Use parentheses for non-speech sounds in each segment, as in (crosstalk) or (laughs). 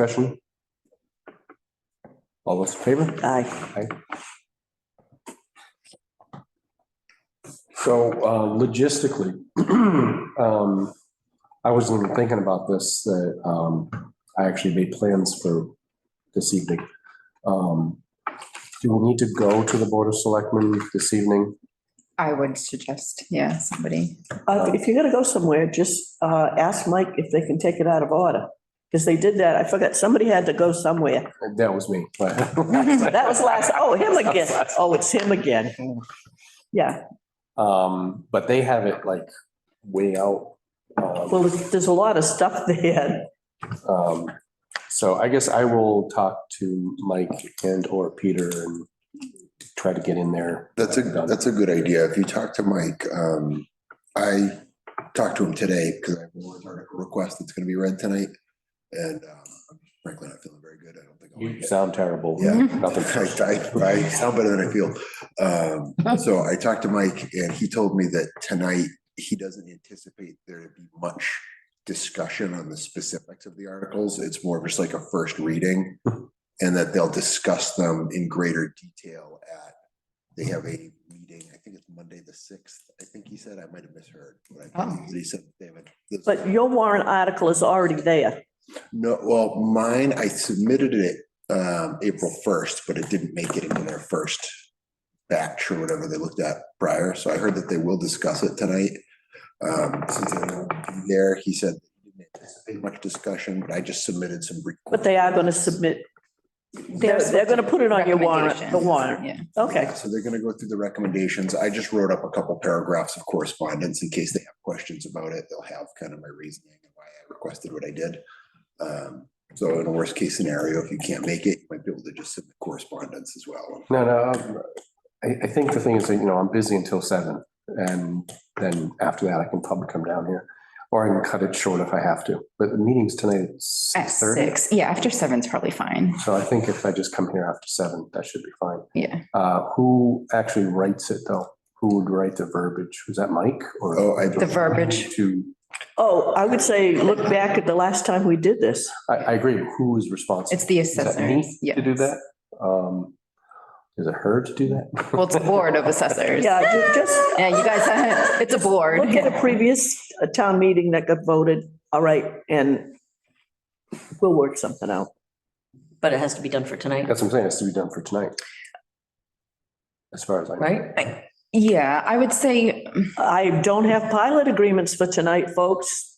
Discussion? All those in favor? Aye. So uh, logistically, (clears throat) um, I wasn't even thinking about this, that um, I actually made plans for this evening. Um, Do we need to go to the Board of Selectmen this evening? I would suggest, yeah, somebody. Uh, If you're going to go somewhere, just uh, ask Mike if they can take it out of order. Because they did that. I forgot, somebody had to go somewhere. That was me, but. (laughs) That (laughs) was last, oh, him again. Oh, it's him again. Yeah, Um, but they have it like way out. Um, well, there's a lot of stuff there. um, So I guess I will talk to Mike and or Peter and try to get in there. That's a, that's a good idea. If you talk to Mike, um, I talked to him today because I have a warrant article request that's gonna be read tonight. And, um, I'm frankly, not feeling very good. I don't think. I'll You make it. sound terrible. Yeah. Nothing. (laughs) I, I, I sound better than I feel. Um, so I talked to Mike and he told me that tonight he doesn't anticipate there to be much discussion on the specifics of the articles. It's more of just like a first reading and that they'll discuss them in greater detail at, they have a meeting, I think it's Monday the sixth. I think he said, I might have misheard. but I think Oh. He said, they have a- But your warrant article is already there. no, well, mine, I submitted it um April first, but it didn't make it into their first batch or whatever they looked at prior, so I heard that they will discuss it tonight. Um, since they won't be there, he said, he didn't anticipate much discussion, but I just submitted some. brief- But they are going to submit. They're, they're going to put it on your warrant, the Recommendations, warrant. Yeah. Okay, So they're gonna go through the recommendations. I just wrote up a couple paragraphs of correspondence in case they have questions about it. They'll have kind of my reasoning and why I requested what I did. Um, so in a worst case scenario, if you can't make it, you might be able to just submit correspondence as well. No, no, um, I, I think the thing is that, you know, I'm busy until seven and then after that I can probably come down here. Or I can cut it short if I have to, but the meeting's tonight at At six thirty. six, yeah, after seven's probably fine, So I think if I just come here after seven, that should be fine. yeah. Uh, who actually writes it though? Who would write the verbiage? Was that Mike or? Oh, I- The verbiage. To, oh, I would say, look back at the last time we did this. I, I agree. Who is responsible? It's the Is that assessor. me To do that? Um, is it her to do that? Well, it's a board of assessors. Yeah, ju- just, Yeah, you guys, (laughs) it's a board. Look (laughs) at a previous uh, town meeting that got voted, all right, and we'll work something out. But it has to be done for tonight, That's what I'm saying. It's to be done for tonight. As far as I. know. right? Yeah, I would say I don't have pilot agreements for tonight, folks,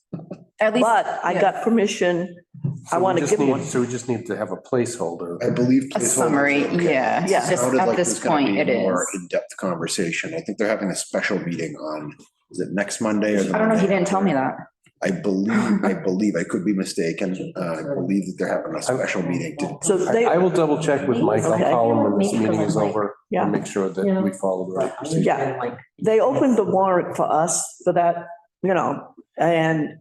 at least. but I got permission. I So we wanna just give need- one. So we just need to have a placeholder. I believe. A placeholders are summary, okay. yeah. Yeah. Just Sounded at like this there's gonna point, be it more is. In-depth conversation. I think they're having a special meeting on, is it next Monday or? the I don't know, he Monday didn't tell me that. after? I believe, I believe, I could be mistaken. Uh, I believe that they're having a special meeting to, So I, they, I will double check with Mike. I'll Okay. call him when this Meet for meeting is like- over. Yeah. And make sure that Yeah. we follow the right procedure. Yeah. they opened the warrant for us for that, you know, and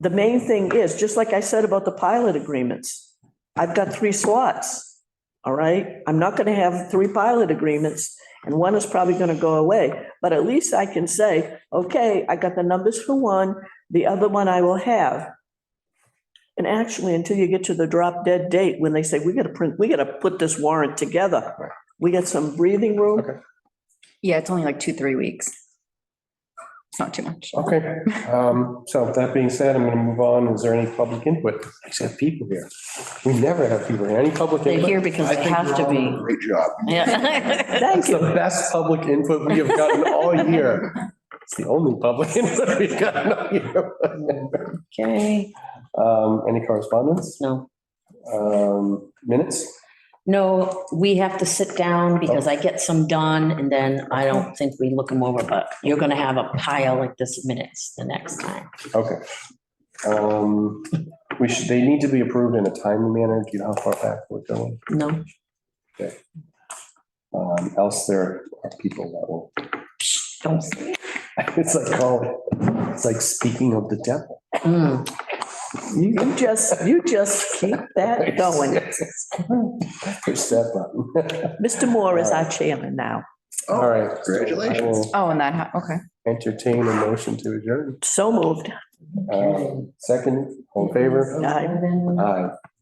the main thing is, just like I said about the pilot agreements, I've got three slots, all right? I'm not gonna have three pilot agreements, and one is probably gonna go away. But at least I can say, okay, I got the numbers for one, the other one I will have. And actually, until you get to the drop dead date, when they say, we gotta print, we gotta put this warrant together, Right. we get some breathing room. Okay. Yeah, it's only like two, three weeks. It's not too much. Okay, um, so that being said, I'm gonna move on. Is there any public input? I just have people here. We never have people here. Any public They're input? here because they have to be. great job. (laughs) Yeah. Thank That's the you. best public input we have gotten all year. It's the only public (laughs) input we've gotten all year. (laughs) Okay, Um, any correspondence? no, Um, minutes? no, we have to sit down because I get some done and then I don't think we look them over, but you're gonna have a pile like this of minutes the next time. Okay. Um, we should, they need to be approved in a timely manner. Do you know how far back we're going? No, Um, else there are people that will, Psh, don't. say it. (laughs) it's like, oh, it's like speaking of the devil. Mm. You you just, you just keep (laughs) that going. Push that button. (laughs) Mr. Moore is our chairman now. All right. Congratulations. I will Oh, and that, ha- okay. Entertain a motion to adjourn. So moved. Um, Second, all in favor? Aye. And then- Aye.